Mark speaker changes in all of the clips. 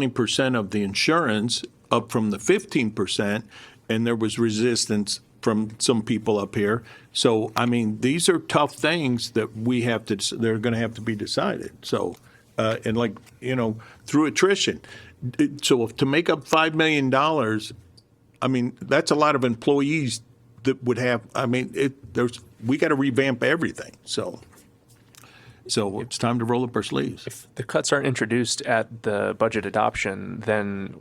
Speaker 1: 20% of the insurance up from the 15%, and there was resistance from some people up here. So, I mean, these are tough things that we have to, they're going to have to be decided. So, uh, and like, you know, through attrition. It- So if- to make up $5 million, I mean, that's a lot of employees that would have, I mean, it, there's, we got to revamp everything. So, so it's time to roll up our sleeves.
Speaker 2: If the cuts aren't introduced at the budget adoption, then,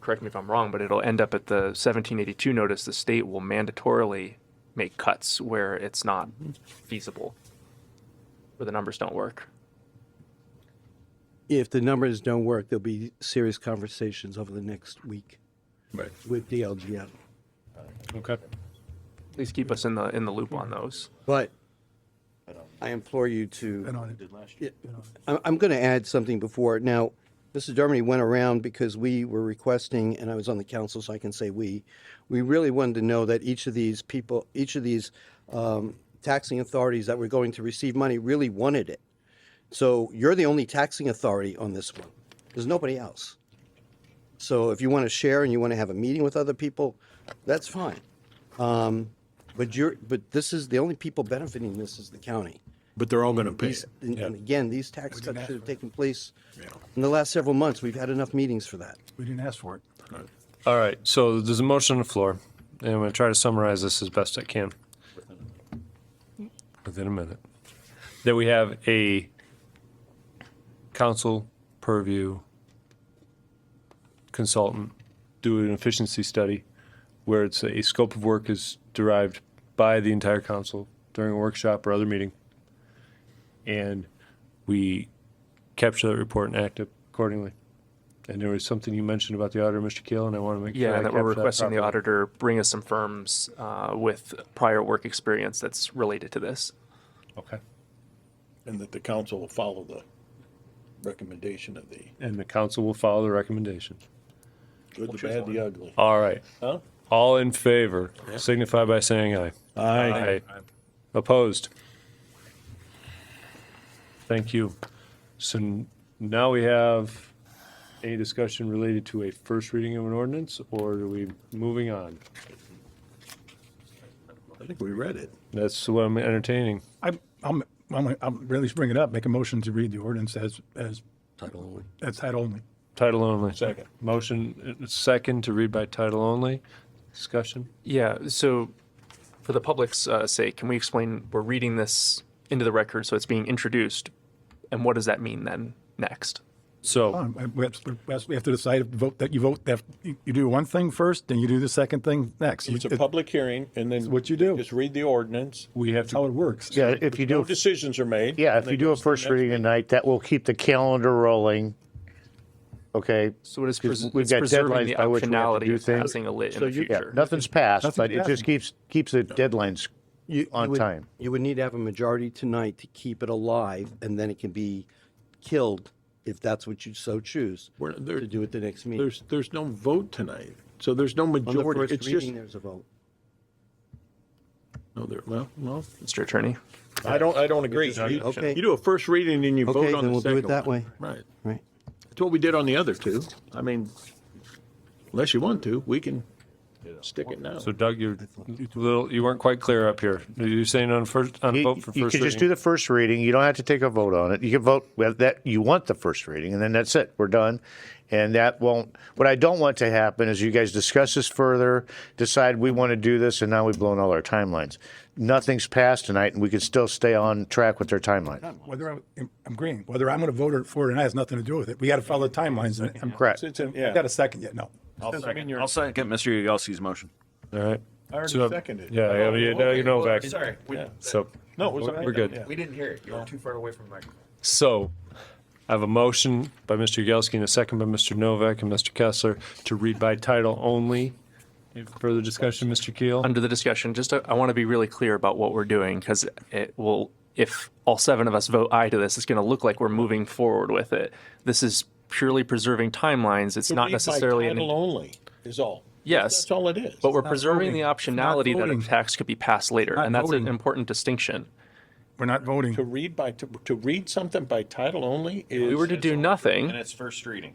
Speaker 2: correct me if I'm wrong, but it'll end up at the 1782 notice, the state will mandatorily make cuts where it's not feasible, where the numbers don't work.
Speaker 3: If the numbers don't work, there'll be serious conversations over the next week
Speaker 1: Right.
Speaker 3: with DLGF.
Speaker 4: Okay.
Speaker 2: Please keep us in the, in the loop on those.
Speaker 3: But I implore you to.
Speaker 4: And on it.
Speaker 3: I- I'm going to add something before. Now, Mr. Dermody went around because we were requesting, and I was on the council, so I can say we, we really wanted to know that each of these people, each of these um, taxing authorities that were going to receive money really wanted it. So you're the only taxing authority on this one. There's nobody else. So if you want to share and you want to have a meeting with other people, that's fine. Um, But you're, but this is, the only people benefiting this is the county.
Speaker 1: But they're all going to pay
Speaker 3: These,
Speaker 1: it.
Speaker 3: and and again, these tax
Speaker 4: We didn't
Speaker 3: cuts
Speaker 4: ask
Speaker 3: should have
Speaker 4: for it.
Speaker 3: taken place in the last several months. We've had enough meetings for that.
Speaker 4: We didn't ask for it.
Speaker 5: All right, so there's a motion on the floor, and I'm going to try to summarize this as best I can. Within a minute. That we have a council purview consultant do an efficiency study where it's a scope of work is derived by the entire council during a workshop or other meeting. And we capture that report and act accordingly. And there was something you mentioned about the auditor, Mr. Keel, and I want to make sure I
Speaker 2: Yeah, and that we're
Speaker 5: capture that
Speaker 2: requesting the
Speaker 5: properly.
Speaker 2: auditor bring us some firms uh, with prior work experience that's related to this.
Speaker 5: Okay.
Speaker 1: And that the council will follow the recommendation of the
Speaker 5: And the council will follow the recommendation.
Speaker 1: good, the bad, the ugly.
Speaker 5: All right.
Speaker 1: Huh?
Speaker 5: All in favor, signify by saying aye. Aye. Opposed? Thank you. So n- now we have any discussion related to a first reading of an ordinance, or are we moving on?
Speaker 1: I think we read it.
Speaker 5: That's what I'm entertaining.
Speaker 4: I'm, I'm, I'm, gonna- I'm really just bring it up, make a motion to read the ordinance as, as. Title only. As title only.
Speaker 5: Title only.
Speaker 1: Second.
Speaker 5: Motion, uh, second to read by title only. Discussion?
Speaker 2: Yeah, so for the public's uh, sake, can we explain, we're reading this into the record, so it's being introduced, and what does that mean then next?
Speaker 5: So.
Speaker 4: Fine, I- We have to- we have to- we have to decide, if vote, that you vote, that you you do one thing first, then you do the second thing next.
Speaker 1: It's a
Speaker 4: It-
Speaker 1: public hearing and then.
Speaker 4: what you do.
Speaker 1: Just read the ordinance.
Speaker 5: We have to.
Speaker 4: How it works.
Speaker 6: Yeah, if you
Speaker 1: No
Speaker 6: do,
Speaker 1: decisions are made.
Speaker 6: yeah, if you do a first reading tonight, that will keep the calendar rolling. Okay,
Speaker 2: So it is
Speaker 6: Because
Speaker 2: pres-
Speaker 6: we've
Speaker 2: it's
Speaker 6: got
Speaker 2: preserving
Speaker 6: deadlines
Speaker 2: the
Speaker 6: by which we have to
Speaker 2: optionality
Speaker 6: do
Speaker 2: of
Speaker 6: things.
Speaker 2: passing a lit in the
Speaker 6: yeah,
Speaker 2: future.
Speaker 6: nothing's passed,
Speaker 4: Nothing's
Speaker 6: but it
Speaker 4: passed.
Speaker 6: just keeps, keeps the deadlines
Speaker 3: You- you
Speaker 6: on
Speaker 3: would-
Speaker 6: time.
Speaker 3: You would need to have a majority tonight to keep it alive, and then it can be killed if that's what you so choose
Speaker 1: We're- there-
Speaker 3: to do at the next meeting.
Speaker 1: There's, there's no vote tonight. So there's no
Speaker 3: On the
Speaker 1: majority. It's
Speaker 3: first
Speaker 1: just,
Speaker 3: reading, there's a vote.
Speaker 1: no, there, well, well,
Speaker 2: Mr. Attorney,
Speaker 1: I don't, I don't agree. You
Speaker 3: Okay.
Speaker 1: you do a first reading and you vote on the
Speaker 3: Okay,
Speaker 1: second.
Speaker 3: then we'll do it that
Speaker 1: one.
Speaker 3: way.
Speaker 1: Right.
Speaker 3: Right.
Speaker 1: That's what we did on the other two. I mean, unless you want to, we can stick it now.
Speaker 5: So Doug, you're little, you weren't quite clear up here. You're saying on first, on
Speaker 6: You
Speaker 5: vote for
Speaker 6: you
Speaker 5: first
Speaker 6: can just do
Speaker 5: reading?
Speaker 6: the first reading, you don't have to take a vote on it, you can vote with that, you want the first reading, and then that's it, we're done. And that won't, what I don't want to happen is you guys discuss this further, decide we want to do this, and now we've blown all our timelines. Nothing's passed tonight, and we can still stay on track with their timeline.
Speaker 4: Whether I'm, I'm agreeing, whether I'm gonna vote for it or not has nothing to do with it. We gotta follow the timelines. and- and-
Speaker 6: Correct.
Speaker 1: It's in-
Speaker 4: I got a second yet, no.
Speaker 7: I'll second, I'll second Mr. Yagowski's motion.
Speaker 5: All right.
Speaker 1: I already
Speaker 5: So, uh,
Speaker 1: seconded it.
Speaker 5: Yeah, yeah, yeah, now you know back.
Speaker 8: Sorry, we,
Speaker 5: So,
Speaker 1: No, it was all right.
Speaker 5: we're good.
Speaker 1: Yeah.
Speaker 8: we didn't hear it. You were too far away from the microphone.
Speaker 5: So I have a motion by Mr. Yagowski and a second by Mr. Novak and Mr. Kessler to read by title only. Any Further discussion, Mr. Keel?
Speaker 2: under the discussion, just uh, I want to be really clear about what we're doing, because it will, if all seven of us vote aye to this, it's going to look like we're moving forward with it. This is purely preserving timelines, it's not
Speaker 1: Read by
Speaker 2: necessarily. an-
Speaker 1: Title only is all.
Speaker 2: Yes.
Speaker 1: That's all it is.
Speaker 2: But we're preserving the
Speaker 4: voting. It's not
Speaker 2: optionality that
Speaker 4: voting.
Speaker 2: a tax could be passed later,
Speaker 4: Not
Speaker 2: and that's an
Speaker 4: voting.
Speaker 2: important distinction.
Speaker 4: We're not voting.
Speaker 1: To read by, to, to read something by title only is.
Speaker 2: We were to do nothing.
Speaker 7: And it's first reading.